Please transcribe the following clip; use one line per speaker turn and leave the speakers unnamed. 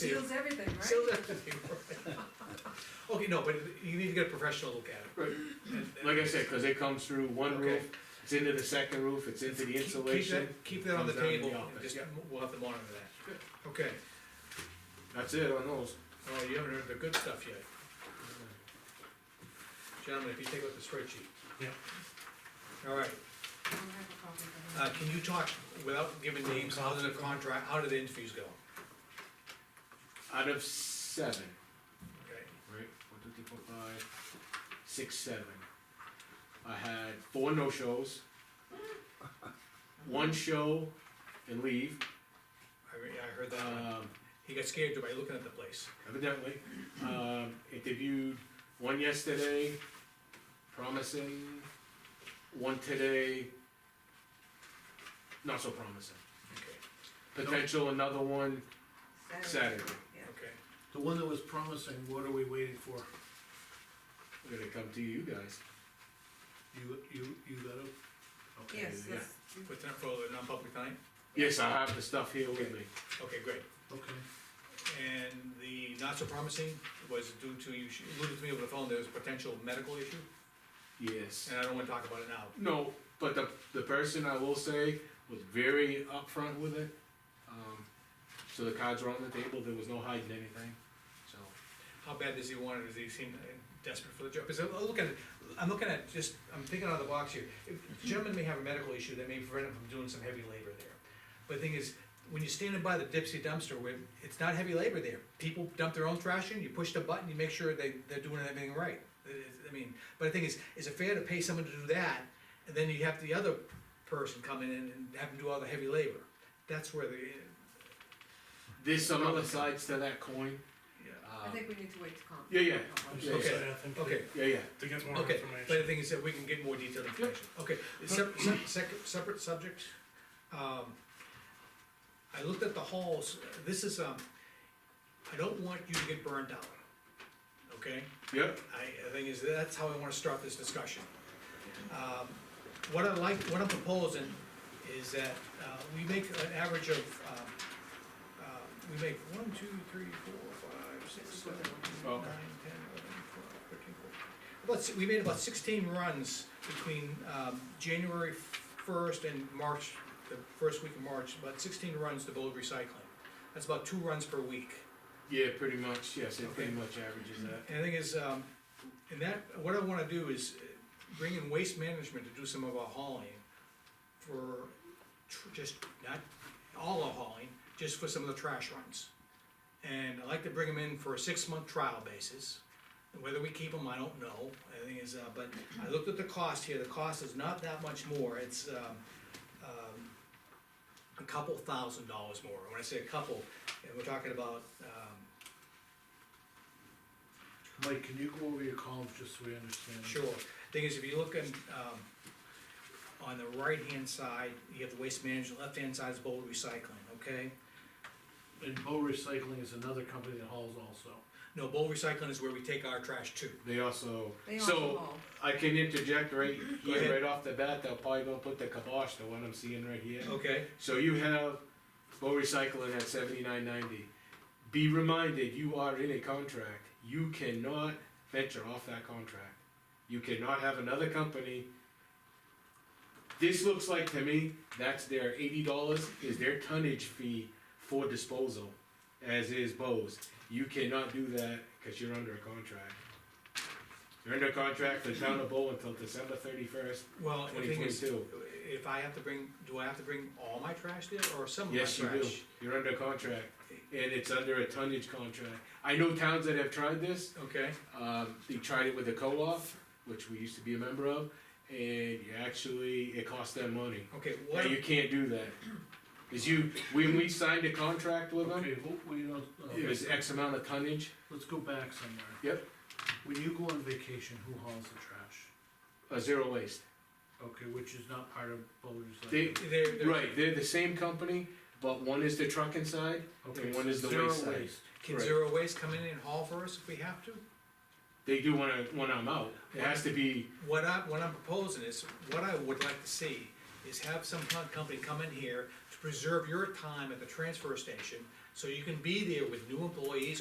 Seals everything,
Still
right?
doesn't- Okay, no, but you need to get a professional look at it.
Right.
And- and
Like I said, cause it comes through one
Okay.
roof, it's into the second roof, it's into
keep- keep
the
that-
insulation.
Keep that on the
comes down to
table, and
office.
just,
Yeah,
we'll have to monitor that. Okay,
That's it on those.
oh, you haven't heard the good stuff yet. Gentlemen, if you take a look at the spreadsheet.
Yep.
All right,
I don't have a copy of that.
uh, can you talk, without giving names, how did the contract, how did the interviews go?
Out of seven,
Okay,
right, one, two, three, four, five, six, seven. I had four no-shows. One show and leave,
I, re- I heard that, one.
um,
he got scared by looking at the place.
evidently. Um, interviewed one yesterday, promising, one today, not so promising.
Okay,
Potential another one Saturday.
Yeah.
okay,
The one that was promising, what are we waiting for?
We're gonna come to you guys.
You, you, you got it? Okay.
Yes,
Yeah.
yes.
put that for a non-public time?
Yes, I have the stuff here with me.
Okay, great.
Okay,
And the not so promising was due to, you sh- alluded to me over the phone, there was a potential medical issue,
Yes.
and I don't wanna talk about it now.
No, but the, the person I will say was very upfront with it. Um, so the cards were on the table, there was no hiding anything, so.
How bad does he want it, does he seem desperate for the job? Because I'm looking, I'm looking at just, I'm thinking out of the box here. If the Gentleman may have a medical issue that may prevent him from doing some heavy labor there. But the thing is, when you're standing by the Dipsy dumpster, where it's not heavy labor there. People dump their own trash in, you push the button, you make sure they, they're doing everything right. It is- I mean, but the thing is, is it fair to pay someone to do that, and then you have the other person come in and have them do all the heavy labor? That's where the,
There's some other sides to that coin.
yeah.
I
Um,
think we need to wait to comment.
Yeah, yeah.
just
Okay.
saying, I think to-
Okay,
yeah, yeah.
To get more
Okay,
information.
but the thing is that we can get more detailed information, okay, sep- sep- sec- separate subject, um, I looked at the halls, this is, um, I don't want you to get burned out, okay?
Yep,
I, the thing is, that's how I wanna start this discussion. Um, What I like, what I'm proposing is that, uh, we make an average of, um, uh, we make one, two, three, four, five, six, seven, eight, nine,
Okay.
ten, eleven, twelve, thirteen, fourteen. About, si- we made about sixteen runs between, um, January first and March, the first week of March, about sixteen runs to Bold Recycling. That's about two runs per week.
yeah, pretty much, yes, it pretty
Okay.
much averages that.
And the thing is, um, and that, what I wanna do is uh, bring in waste management to do some of our hauling for tr- just, not all our hauling, just for some of the trash runs. And I'd like to bring them in for a six-month trial basis. Whether we keep them, I don't know. The thing is, uh, but I looked at the cost here, the cost is not that much more, it's, um, um, a couple thousand dollars more. When I say a couple, and we're talking about, um,
Mike, can you go over your columns just so we understand?
Sure, thing is, if you look in, um, on the right-hand side, you have the waste management, left-hand side is bowl recycling, okay?
And Bow Recycling is another company that hauls also.
No, bowl recycling is where we take our trash to.
They also,
They also
so,
haul.
I can interject right
Go ahead.
here, right off the bat, they'll probably gonna put the kibosh to what I'm seeing right here.
Okay,
So you have Bow Recycling at seventy-nine ninety. Be reminded, you are in a contract. You cannot venture off that contract. You cannot have another company. This looks like to me, that's their eighty dollars is their tonnage fee for disposal, as is Bow's. You cannot do that because you're under a contract. You're under contract for town of Bow until December thirty-first,
well, the
twenty
thing is,
twenty-two.
if I have to bring, do I have to bring all my trash there, or some of my
Yes,
trash?
you do. You're under contract, and it's under a tonnage contract. I know towns that have tried this,
Okay,
um, they tried it with a co-op, which we used to be a member of, and you actually, it cost them money.
okay,
Now,
what,
you can't do that. Is you, when we signed a contract with them,
Okay, well, we don't,
it
uh,
was X amount of tonnage,
let's go back somewhere.
Yep.
When you go on vacation, who hauls the trash?
uh, zero waste.
Okay, which is not part of Bow Recycling.
They,
they're, they're-
right, they're the same company, but one is the trucking side,
Okay,
and one is the
zero
waste side.
waste.
can
right.
Zero Waste come in and haul for us if we have to?
They do when I, when I'm out. It has to be,
What I, what I'm proposing is, what I would like to see is have some co- company come in here to preserve your time at the transfer station So you can be there with new employees